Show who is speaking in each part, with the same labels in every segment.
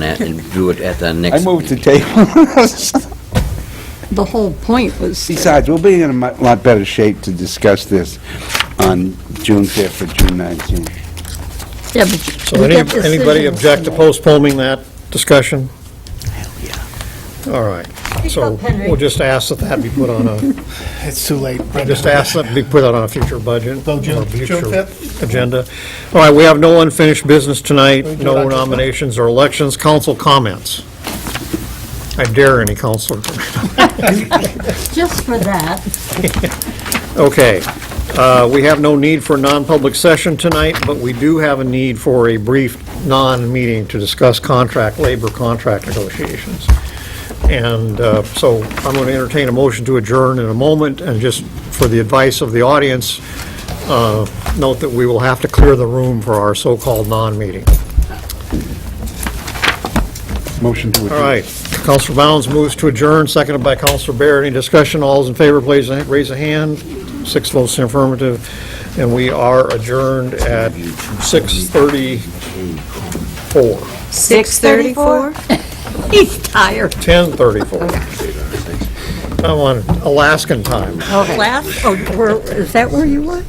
Speaker 1: that and do it at the next.
Speaker 2: I moved to
Speaker 1: meeting.
Speaker 2: table.
Speaker 3: The whole point was.
Speaker 2: Besides, we'll be in a mu- lot better shape to discuss this on June 5th or June 19th.
Speaker 3: Yeah, but you-
Speaker 4: So
Speaker 3: we
Speaker 4: any-
Speaker 3: get
Speaker 4: anybody
Speaker 3: decisions
Speaker 4: object to
Speaker 3: Sunday.
Speaker 4: postponing that discussion? Hell, yeah. All right. So
Speaker 5: up, Henry.
Speaker 4: we'll just ask that that be put on a,
Speaker 6: It's too late.
Speaker 4: just ask that be put on a future budget.
Speaker 6: So June-
Speaker 4: or
Speaker 6: June
Speaker 4: future
Speaker 6: 5th?
Speaker 4: Agenda. All right, we have no unfinished business tonight,
Speaker 6: do
Speaker 4: no
Speaker 6: that just now.
Speaker 4: nominations or elections, council comments. I dare any counselor.
Speaker 5: Just for that.
Speaker 4: Okay, uh, we have no need for a non-public session tonight, but we do have a need for a brief non-meeting to discuss contract, labor contract negotiations. And uh, so I'm going to entertain a motion to adjourn in a moment, and just for the advice of the audience, uh, note that we will have to clear the room for our so-called non-meeting.
Speaker 2: Motion to adjourn.
Speaker 4: All right, Counselor Bounds moves to adjourn, seconded by Counselor Barrett. Any discussion? All those in favor, please raise a hand. Six votes in affirmative, and we are adjourned at 6:34.
Speaker 7: 6:34?
Speaker 3: He's tired.
Speaker 4: 10:34. I'm on Alaskan time.
Speaker 3: Last, oh, where, is that where you were?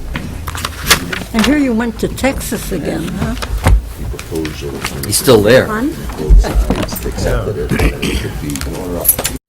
Speaker 3: I hear you went to Texas again, huh?
Speaker 1: He's still there.
Speaker 3: Fun?